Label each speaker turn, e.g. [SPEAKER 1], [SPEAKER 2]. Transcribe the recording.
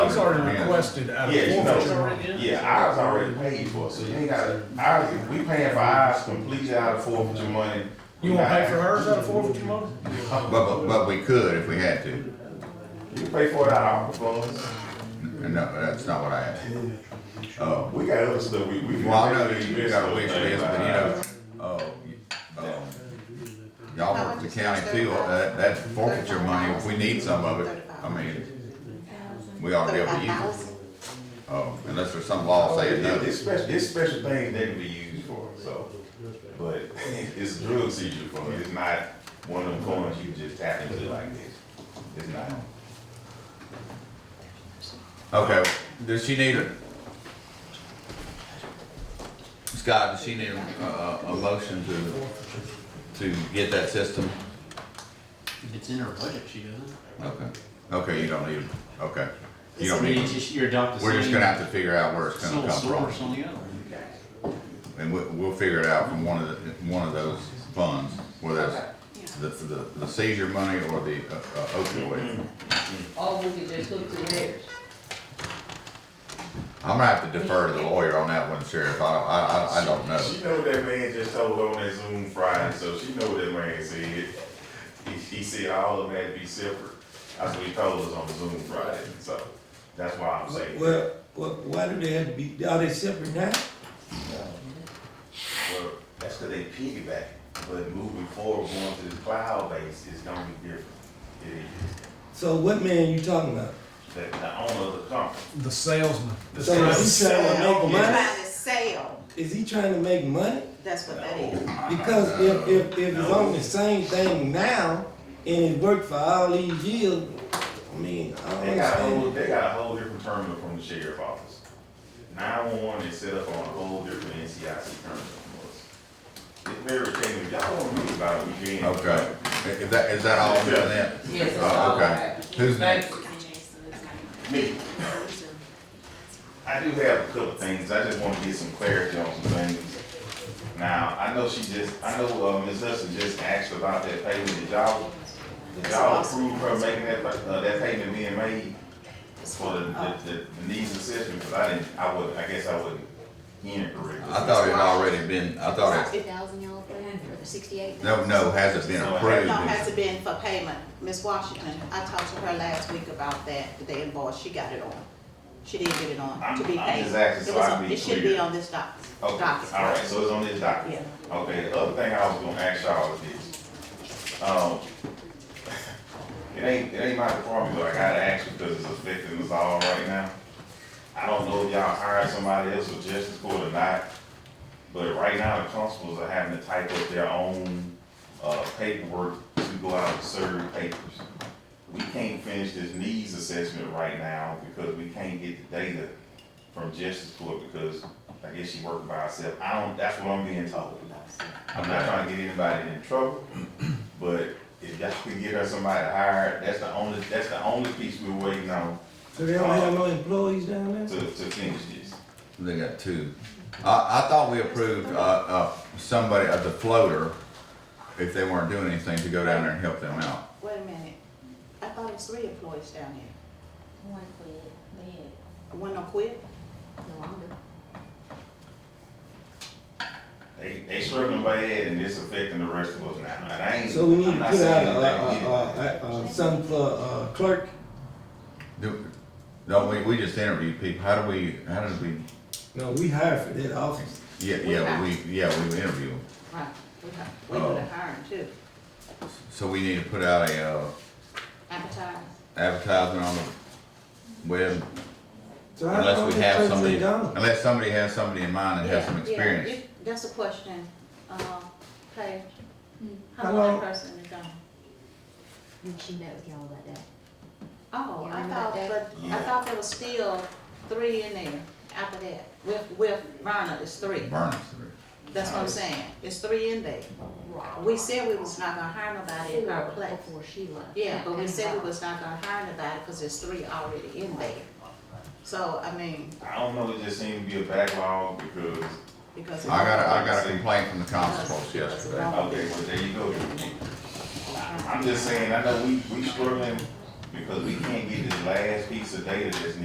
[SPEAKER 1] He's already requested out of
[SPEAKER 2] Yeah, you know,
[SPEAKER 3] Oh,
[SPEAKER 1] forfeiture money.
[SPEAKER 2] yeah, ours already paid for, so you ain't gotta, ours, if we paying for ours completely out of forfeiture money.
[SPEAKER 1] You wanna pay for hers out of forfeiture money?
[SPEAKER 3] But, but, but we could if we had to.
[SPEAKER 2] You pay for it out of our funds.
[SPEAKER 3] No, that's not what I asked.
[SPEAKER 2] Uh, we got other stuff, we, we.
[SPEAKER 3] Well, I know that you got a wish list, but you know, uh, you- uh, y'all work the county too, uh, that, that's forfeiture money, if we need some of it, I mean, we ought to be able to use it. Oh, unless there's some law saying
[SPEAKER 2] It-
[SPEAKER 3] no.
[SPEAKER 2] Oh, It's special, it's special things that can be used for, so, but it's a drill seizure fund, it's not one of them coins you just tap into like this. It's not,
[SPEAKER 3] Okay, does she need a? Scott, does she need a, a, a motion to, to get that system?
[SPEAKER 4] If it's in her budget, she doesn't.
[SPEAKER 3] Okay, okay, you don't need, okay. You
[SPEAKER 4] I
[SPEAKER 3] don't
[SPEAKER 4] mean,
[SPEAKER 3] need,
[SPEAKER 4] it's just, you're adopting.
[SPEAKER 3] we're just gonna have to figure out where it's gonna
[SPEAKER 4] Sole
[SPEAKER 3] come from.
[SPEAKER 4] source on the other.
[SPEAKER 3] And we'll, we'll figure it out from one of the, one of those funds, whether it's the, the the seizure money or the uh, uh, opioid.
[SPEAKER 5] All we could just look through theirs.
[SPEAKER 3] I'm gonna have to defer to the lawyer on that one, Sheriff, I, don't- I, I, I don't know.
[SPEAKER 2] She know what that man just told her on that Zoom Friday, so she know what that man said. He, he said all of them had to be separate. That's what he told us on Zoom Friday, so that's why I'm saying. Well,
[SPEAKER 6] Well, well, why do they have to be, are they separate now?
[SPEAKER 2] that's because they piggyback, but moving forward, going to the cloud base is gonna be different. It is,
[SPEAKER 6] So what man you talking about?
[SPEAKER 2] the, the owner of the company.
[SPEAKER 1] The salesman.
[SPEAKER 2] The
[SPEAKER 6] So is he trying to make money?
[SPEAKER 7] Trying to sell,
[SPEAKER 6] Is he trying to make money?
[SPEAKER 7] that's what that is.
[SPEAKER 6] Because if, if, if it's on the same thing now, and it worked for all these years, I mean, I don't
[SPEAKER 2] They got a whole,
[SPEAKER 6] understand.
[SPEAKER 2] they got a whole different terminal from the sheriff office. Nine-one-one is set up on a whole different NCIC terminal from us. It's very changing, y'all don't read about it, we can't.
[SPEAKER 3] Okay, is that, is that all I'm doing then?
[SPEAKER 5] Yes, it's
[SPEAKER 3] Oh,
[SPEAKER 5] all
[SPEAKER 3] okay.
[SPEAKER 5] right.
[SPEAKER 3] Who's next?
[SPEAKER 2] Me, I do have a couple of things, I just wanna get some clarity on some things. Now, I know she just, I know, uh, Ms. Hudson just asked about that payment, did y'all, did y'all approve her making that, uh, that payment being made? For the, the, the needs assessment, because I didn't, I would, I guess I wasn't hearing correctly.
[SPEAKER 3] I thought it had already been, I thought it,
[SPEAKER 8] Sixty thousand y'all put in for the sixty-eight?
[SPEAKER 3] no, no, hasn't been approved.
[SPEAKER 7] No, has it been for payment? Miss Washington, I talked to her last week about that, the invoice, she got it on. She did get it on to be
[SPEAKER 2] I'm- I'm
[SPEAKER 7] paid.
[SPEAKER 2] just asking
[SPEAKER 7] It
[SPEAKER 2] so
[SPEAKER 7] was
[SPEAKER 2] I
[SPEAKER 7] on-
[SPEAKER 2] be
[SPEAKER 7] It should
[SPEAKER 2] clear.
[SPEAKER 7] be on this doc,
[SPEAKER 2] Okay,
[SPEAKER 7] docket.
[SPEAKER 2] all right, so it's on this docket.
[SPEAKER 7] Yeah.
[SPEAKER 2] Okay, the other thing I was gonna ask y'all is this. Um, it ain't, it ain't my department, but I gotta ask you because it's affecting us all right now. I don't know if y'all hired somebody else for justice court or not, but right now the constables are having to type up their own, uh, paperwork to go out and serve papers. We can't finish this needs assessment right now because we can't get the data from justice court because I guess she working by herself. I don't, that's what I'm being told. I'm not trying to get anybody in trouble, but if y'all could get her somebody hired, that's the only, that's the only piece we're waiting on
[SPEAKER 6] So they don't have no employees down there?
[SPEAKER 2] to, to finish this.
[SPEAKER 3] They got two. I, I thought we approved, uh, uh, somebody, uh, the floater, if they weren't doing anything, to go down there and help them out.
[SPEAKER 7] Wait a minute, I thought it was three employees down here.
[SPEAKER 8] One quit, they
[SPEAKER 7] One don't quit?
[SPEAKER 8] had no longer.
[SPEAKER 2] They, they struggling bad and it's affecting the rest of us now. And I ain't,
[SPEAKER 6] So we need
[SPEAKER 2] I'm
[SPEAKER 6] to
[SPEAKER 2] not
[SPEAKER 6] put out,
[SPEAKER 2] saying
[SPEAKER 6] uh,
[SPEAKER 2] anything.
[SPEAKER 6] uh, uh, uh, something for, uh, clerk,
[SPEAKER 3] Do, don't we, we just interviewed people, how do we, how did we,
[SPEAKER 6] no, we hired for that office.
[SPEAKER 3] yeah, yeah, we, yeah, we interview them.
[SPEAKER 7] Right. We got- We would
[SPEAKER 3] Oh.
[SPEAKER 7] have hired too.
[SPEAKER 3] So we need to put out a, uh,
[SPEAKER 7] Advertise.
[SPEAKER 3] advertisement on the web,
[SPEAKER 6] So how come
[SPEAKER 3] unless
[SPEAKER 6] the
[SPEAKER 3] we have
[SPEAKER 6] clerks
[SPEAKER 3] somebody,
[SPEAKER 6] ain't gone?
[SPEAKER 3] unless somebody has somebody in mind and has some
[SPEAKER 7] Yeah, yeah.
[SPEAKER 3] experience.
[SPEAKER 7] If- That's a question, um, Paige. Hmm. How
[SPEAKER 6] How
[SPEAKER 7] long
[SPEAKER 6] long-
[SPEAKER 7] that person is on?
[SPEAKER 8] And she met with y'all that day.
[SPEAKER 7] Oh,
[SPEAKER 8] Yeah,
[SPEAKER 7] I
[SPEAKER 8] remember
[SPEAKER 7] thought,
[SPEAKER 8] that day?
[SPEAKER 7] but I
[SPEAKER 2] Yeah.
[SPEAKER 7] thought there was still three in there after that. With, with Rhonda, it's three.
[SPEAKER 3] Burns.
[SPEAKER 7] That's what I'm saying. It's three in there. We said we was not gonna hire nobody in her place.
[SPEAKER 8] Before she left.
[SPEAKER 7] Yeah, but we
[SPEAKER 8] And
[SPEAKER 7] said we
[SPEAKER 8] about-
[SPEAKER 7] was not gonna hire nobody because there's three already in there. So, I mean,
[SPEAKER 6] uh.
[SPEAKER 2] I don't know, it just seems to be a backlog because,
[SPEAKER 7] because.
[SPEAKER 3] I got a, I got a complaint from the constables yesterday.
[SPEAKER 2] okay, well, there you go. I'm just saying, I know we, we struggling because we can't get this last piece of data that's